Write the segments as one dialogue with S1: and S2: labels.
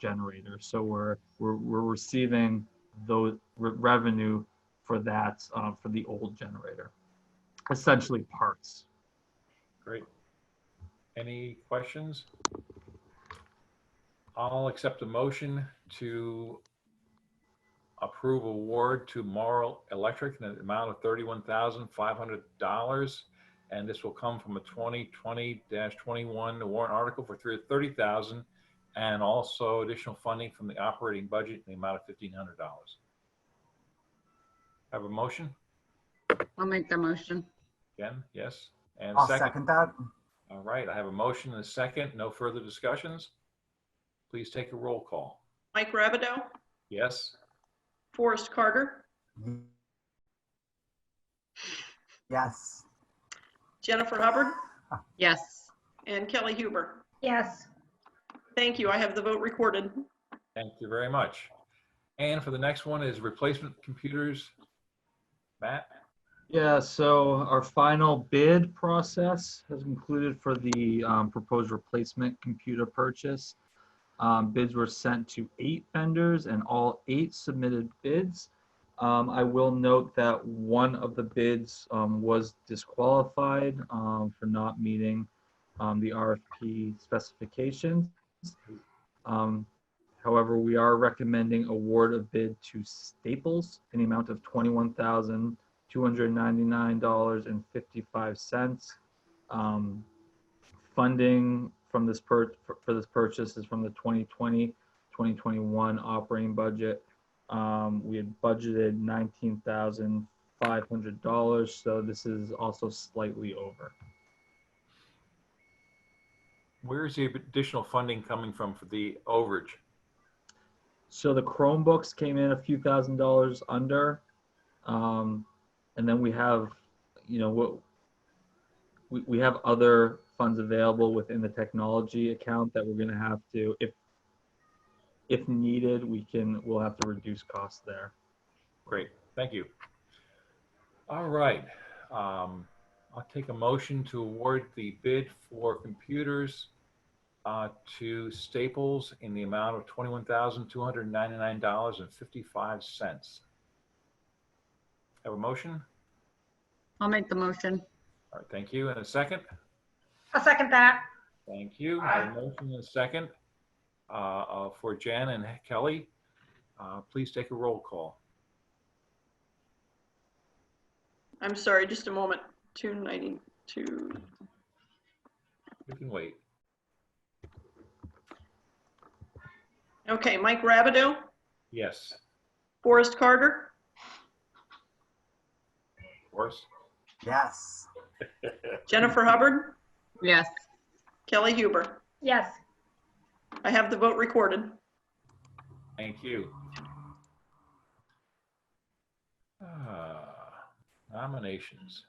S1: generator. So we're, we're, we're receiving those re- revenue for that, uh, for the old generator. Essentially parts.
S2: Great. Any questions? I'll accept a motion to approve award to Morrow Electric in the amount of $31,500. And this will come from a 2020-21 warrant article for three- 30000 and also additional funding from the operating budget in the amount of $1,500. Have a motion?
S3: I'll make the motion.
S2: Jen, yes? And
S4: I'll second that.
S2: All right, I have a motion and a second. No further discussions. Please take a roll call.
S5: Mike Rabado,
S2: Yes?
S5: Forrest Carter,
S4: Yes.
S5: Jennifer Hubbard,
S3: Yes.
S5: and Kelly Huber.
S3: Yes.
S5: Thank you. I have the vote recorded.
S2: Thank you very much. And for the next one is replacement computers. Matt?
S1: Yeah, so our final bid process has concluded for the um, proposed replacement computer purchase. Um, Bids were sent to eight vendors and all eight submitted bids. Um, I will note that one of the bids um, was disqualified um, for not meeting um, the RFP specifications. Um, However, we are recommending award of bid to Staples in the amount of twenty-one thousand $299.55. Um, Funding from this per, for- for this purchase is from the 2020, 2021 operating budget. Um, We had budgeted $19,500, so this is also slightly over.
S2: Where is the additional funding coming from for the overage?
S1: So the Chromebooks came in a few thousand dollars under. Um, and then we have, you know, what we, we have other funds available within the technology account that we're going to have to, if, if needed, we can, we'll have to reduce costs there.
S2: Great, thank you. All right, um, I'll take a motion to award the bid for computers uh, to Staples in the amount of twenty-one thousand, two hundred and ninety-nine dollars and fifty-five cents. Have a motion?
S3: I'll make the motion.
S2: All right, thank you. And a second?
S3: I'll second that.
S2: Thank you. I have A motion and a second uh, uh, for Jan and Kelly. Uh, Please take a roll call.
S5: I'm sorry, just a moment. 292.
S2: You can wait.
S5: Okay, Mike Rabado,
S2: Yes,
S5: Forrest Carter,
S2: of course.
S4: Yes.
S5: Jennifer Hubbard,
S3: Yes.
S5: Kelly Huber.
S3: Yes.
S5: I have the vote recorded.
S2: Thank you. Ah, Nominations.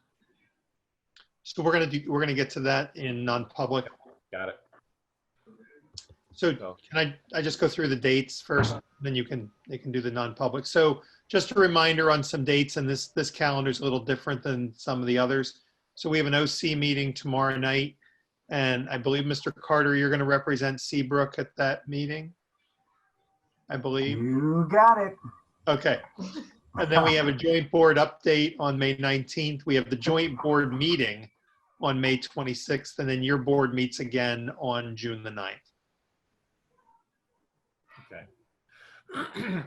S6: So we're gonna do, we're gonna get to that in non-public.
S2: Got it.
S6: So
S2: So,
S6: can I, I just go through the dates first, then you can, you can do the non-public. So just a reminder on some dates, and this, this calendar is a little different than some of the others. So we have an OC meeting tomorrow night, and I believe, Mr. Carter, you're gonna represent Seabrook at that meeting? I believe.
S4: You got it.
S6: Okay. And then we have a joint board update on May 19th. We have the joint board meeting on May 26th, and then your board meets again on June the 9th.
S2: okay.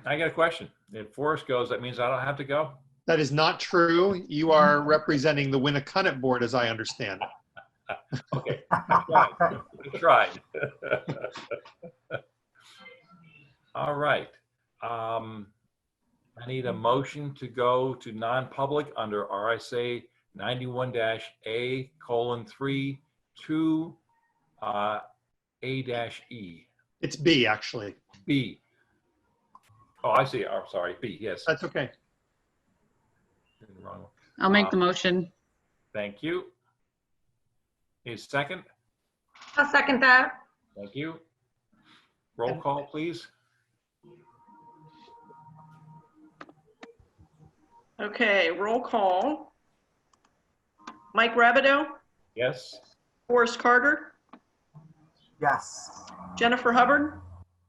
S2: I got a question. If Forrest goes, that means I don't have to go?
S6: That is not true. You are representing the Winnicott Board, as I understand it.
S2: Okay, I tried. I tried. All right. Um, I need a motion to go to non-public under RSA ninety-one dash A colon three two uh, A dash E,
S6: It's B, actually.
S2: B. Oh, I see. I'm sorry. B, yes.
S6: That's okay.
S2: Wrong.
S3: I'll make the motion.
S2: Thank you. Is second?
S3: I'll second that.
S2: Thank you. Roll call, please.
S5: Okay, roll call. Mike Rabado,
S2: Yes?
S5: Forrest Carter,
S4: Yes.
S5: Jennifer Hubbard,